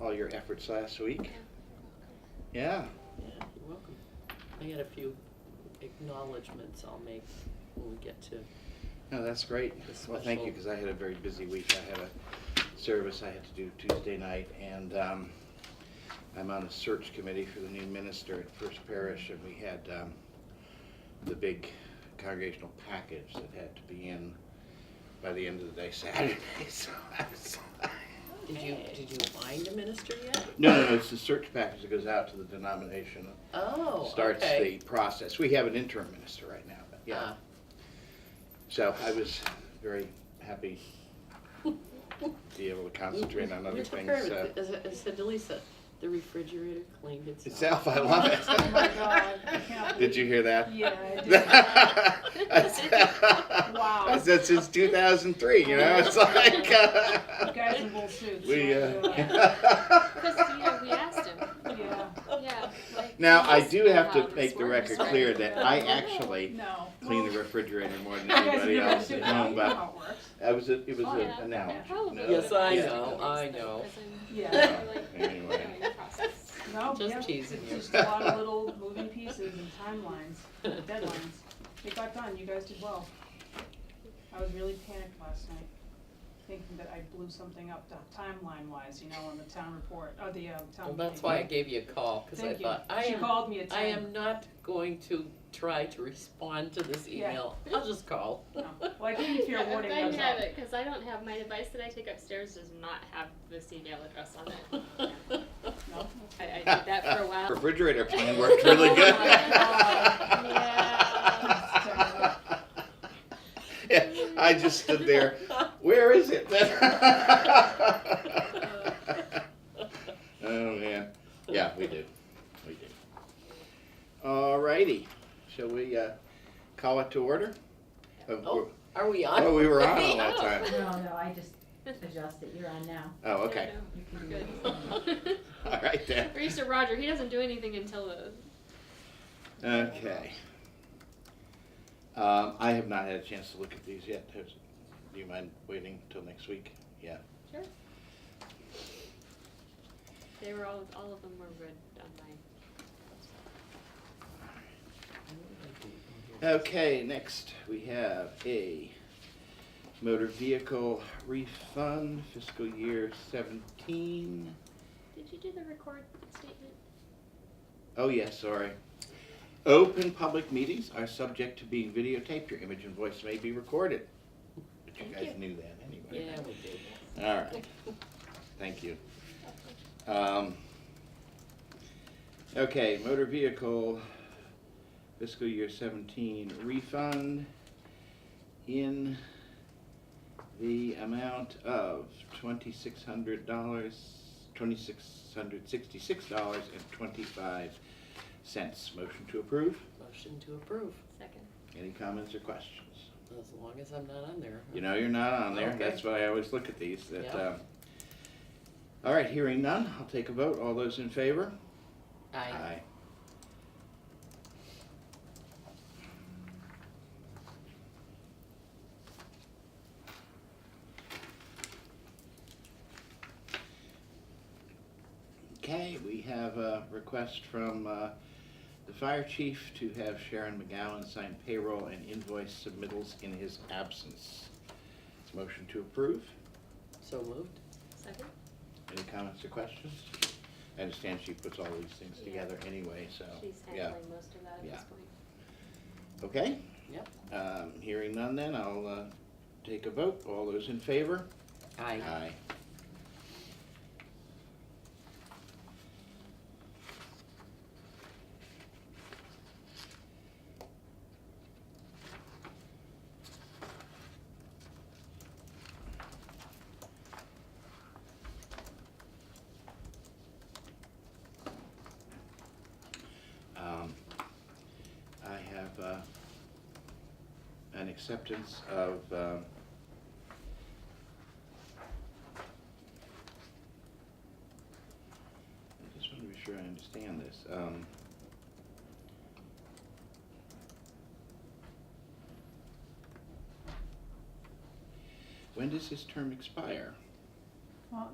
all your efforts last week. Yeah, Yeah, you're welcome. I got a few acknowledgements I'll make when we get to, no, that's great. It's Well, thank you, special. because I had a very busy week. I had a service I had to do Tuesday night, and um, I'm on a search committee for the new minister at First Parish, and we had um, the big congregational package that had to be in by the end of the day Saturday, so I was did you, did you find a minister yet? No, no, no, it's the search package that goes out to the denomination. Oh, starts the okay. process. We have an interim minister right now, but yeah. Ah. So I was very happy to be able to concentrate on We other took things. care of uh, it. As I- as I said to Lisa, the refrigerator cleaned itself. Itself, I love it. Oh my God, I can't Did you hear that? Yeah, I did. I said- Wow. I said since two thousand three, you know, it's like. uh, Guys in wool suits. We, Yeah. uh. Christina, we asked him. Yeah. Yeah. like, Now, he I must do know have how to this make the works, record right? clear that I Yeah. actually No. clean the Well, refrigerator more than you guys in anybody your else suit at now, home, you know but how it works. I was, a- it was Oh, a- yeah. an analogy. Probably. no? Yes, I Yeah. know, I know. Yeah. Anyway. No, Just yeah, teasing it's you. Just a lot of little moving pieces and timelines, and deadlines. It got done, you guys did well. I was really panicked last night, thinking that I blew something up timeline wise, you know, on the town report, or the, um, town Well, meeting. that's why I gave you a call, because I Thank you. thought, I She am, called me at ten. I am not going to try to respond to this Yeah. email. I'll just call. No. Well, I gave you your warning, I that's have all. it, cause I don't have, my device that I take upstairs does not have this email address on it. No? I, I did that for a while. Oh Refrigerator plan worked really good. Yeah. Yeah, I just stood there, where is it? Oh, man, yeah, we do, we do. All righty, shall we, uh, call it to order? Oh, we're- Are we on? Oh, we were on all that time. No, no, I just adjusted, you're on now. Oh, okay, You can do Good. it. all right then. We're used to Roger, he doesn't do anything until the, Okay. Um, I have not had a chance to look at these yet. Has- Do you mind waiting till next week? Yeah. they were all, all of them were read on my, Okay, next, we have a motor vehicle refund fiscal year seventeen. did you do the record statement? Oh, yes, sorry. Open public meetings are subject to being videotaped. Your image and voice may be recorded. But you Thank guys you. knew that anyway. Yeah, we did. All right, thank you. Um, Okay, motor vehicle fiscal year seventeen refund in the amount of twenty-six hundred dollars, twenty-six hundred sixty-six dollars and twenty-five cents. Motion to approve? Motion to approve, Second. Any comments or questions? as long as I'm not on there. You know you're not on there, Okay. that's why I always look at these, that, Yeah. um. All right, hearing none, I'll take a vote, all those in favor? I, Okay, we have a request from uh, the fire chief to have Sharon McGowan sign payroll and invoice submittals in his absence. Motion to approve. so moved. Second? Any comments or questions? I understand she puts all these things Yeah. together anyway, so, She's Oh, yeah, handling most of that at Yeah. this point. okay? Yep. Um, Hearing none then, I'll uh, take a vote. All those in favor? I, Um, I have uh, an acceptance of um, I just want to be sure I understand this. Um, When does his term expire? Well,